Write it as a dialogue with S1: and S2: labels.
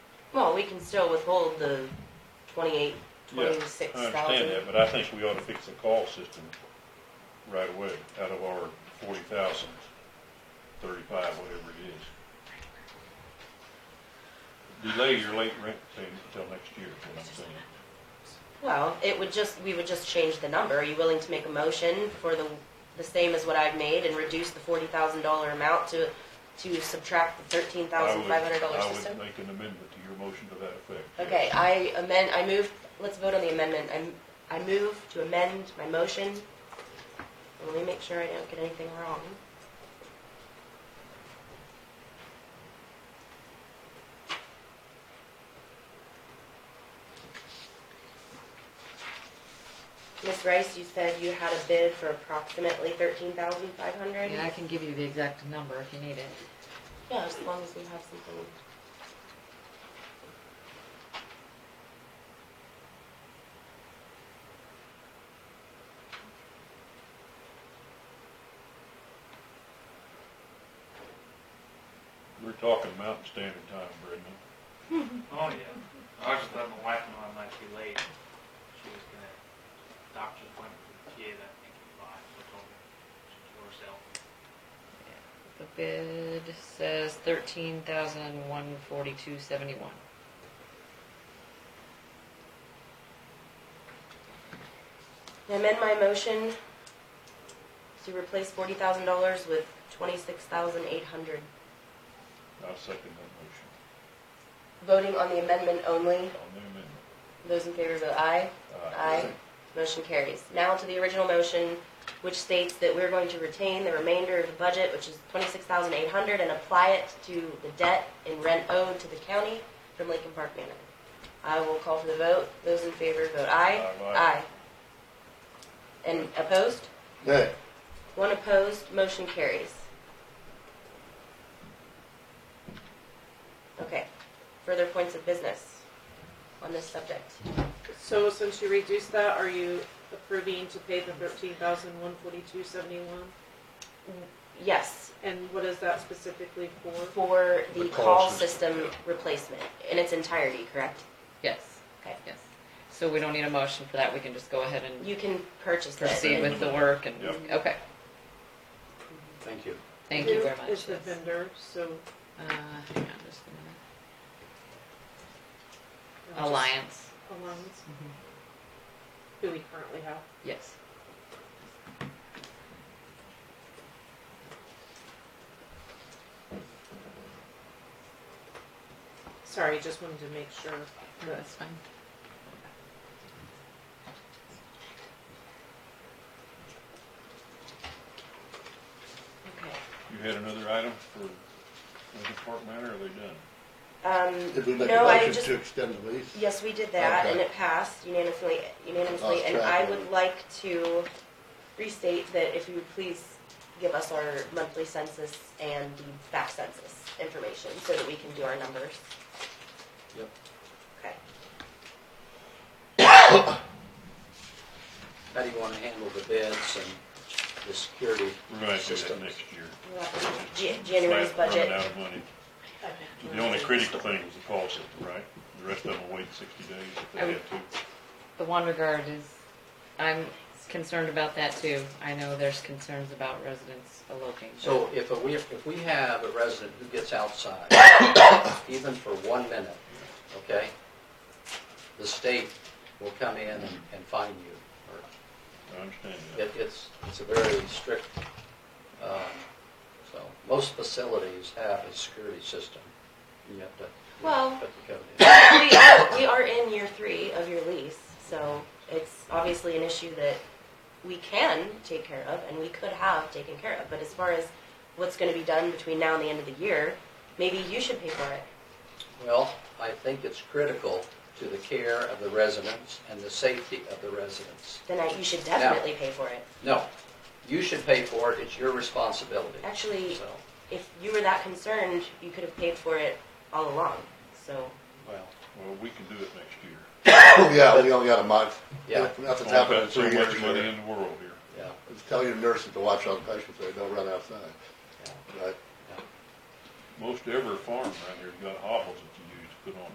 S1: Well, we can still withhold the twenty-eight,
S2: Yeah, I
S1: twenty-six
S2: I understand that,
S1: thousand.
S2: but I think we ought to fix the call system right away, out of our forty thousand, thirty-five, whatever it is. Delay your late rent payment until next year, is what I'm saying.
S1: Well, it would just, we would just change the number. Are you willing to make a motion for the, the same as what I've made and reduce the forty thousand dollar amount to, to subtract the thirteen
S2: I
S1: thousand
S2: would-
S1: five hundred dollar system?
S2: I would make an amendment to your motion to that effect. yes.
S1: Okay, I amend, I move, let's vote on the amendment. I'm, I move to amend my motion. Let me make sure I don't get anything wrong. Ms. Rice, you said you had a bid for approximately thirteen thousand five hundred?
S3: Yeah, I can give you the exact number if you need it.
S1: Yeah, as long as we have something.
S2: We're talking Mountain Standard Time, Brendan.
S4: Oh, yeah. I was just letting my wife know I might be late. She was gonna, doctor's appointment for the kid, I think, at five, so I told her, she told herself.
S3: The bid says thirteen thousand one forty-two seventy-one.
S1: I amend my motion to replace forty thousand dollars with twenty-six thousand eight hundred.
S2: I'll second that
S1: Voting on the amendment only,
S2: motion, on the amendment.
S1: those in favor vote aye. Aye. Motion carries. Now to the original motion, which states that we're going to retain the remainder of the budget, which is twenty-six thousand eight hundred, and apply it to the debt and rent owed to the county from Lincoln Park Manor. I will call for the vote. Those in favor vote aye.
S2: Aye, aye.
S1: And opposed?
S5: Nay.
S1: One opposed, motion carries. Okay, further points of business on this subject.
S6: So since you reduced that, are you approving to pay the thirteen thousand one forty-two seventy-one?
S1: Yes,
S6: And what is that specifically for?
S1: for the
S5: The
S1: call
S5: call
S1: system replacement in its entirety, correct?
S3: Yes.
S1: Okay.
S3: Yes. So we don't need a motion for that, we can just go ahead and
S1: You can purchase that.
S3: proceed with the work and,
S2: Yep.
S3: okay,
S5: Thank you.
S3: thank you
S6: Who
S3: very much.
S6: Is the
S3: yes.
S6: vendor, so.
S3: Uh, hang on just a
S6: I'm
S3: minute.
S6: just-
S3: Alliance,
S6: Alliance,
S3: Mhm.
S6: who we currently have.
S3: yes.
S6: Sorry, just wanted to make sure that
S3: Oh, That's fine.
S1: Okay.
S2: You had another item for Lincoln Park Manor, or are they done?
S5: Did we
S1: Um,
S5: make
S1: no,
S5: a
S1: I
S5: motion
S1: just,
S5: to extend the lease?
S1: yes, we did that and
S5: Okay.
S1: it passed unanimously, unanimously.
S5: Lost
S1: And
S5: track
S1: I
S5: of
S1: would
S5: it.
S1: like to restate that if you would please give us our monthly census and the back census information so that we can do our numbers.
S5: Yep.
S1: Okay.
S7: How do you want to handle the bids and the security
S2: We're gonna do that
S7: system?
S2: next year.
S1: Ja- January's
S2: Flat running
S1: budget.
S2: out of money. The only critical thing was the call system, right? The rest of them will wait sixty days if they
S3: Um,
S2: have to.
S3: The one regard is, I'm concerned about that too. I know there's concerns about residents eloping. but-
S7: So if a- we, if we have a resident who gets outside, even for one minute, okay? The state will come in and and fine you. or-
S2: I understand that.
S7: It, it's, it's a very strict, um, so, most facilities have a security system. You have to. you have to
S1: Well-
S7: put the code in.
S1: we, are, we are in year three of your lease, so it's obviously an issue that we can take care of and we could have taken care of. But as far as what's going to be done between now and the end of the year, maybe you should pay for it.
S7: Well, I think it's critical to the care of the residents and the safety of the residents.
S1: Then I, you should definitely pay for it.
S7: No, you should pay for it, it's your responsibility.
S1: Actually,
S7: So,
S1: if you were that concerned, you could have paid for it all along. So
S7: well,
S2: Well, we can do it next year.
S5: Oh, Yeah, we only got a month.
S7: Yeah.
S5: If Nothing's
S2: Only
S5: happened in
S2: got so
S5: three years.
S2: much money
S5: here.
S2: in the world here.
S7: yeah,
S5: Just Tell your nurses to watch on patients, so they don't run outside.
S7: yeah.
S5: Right?
S2: Most every farm around here's got hobbles that you use to put on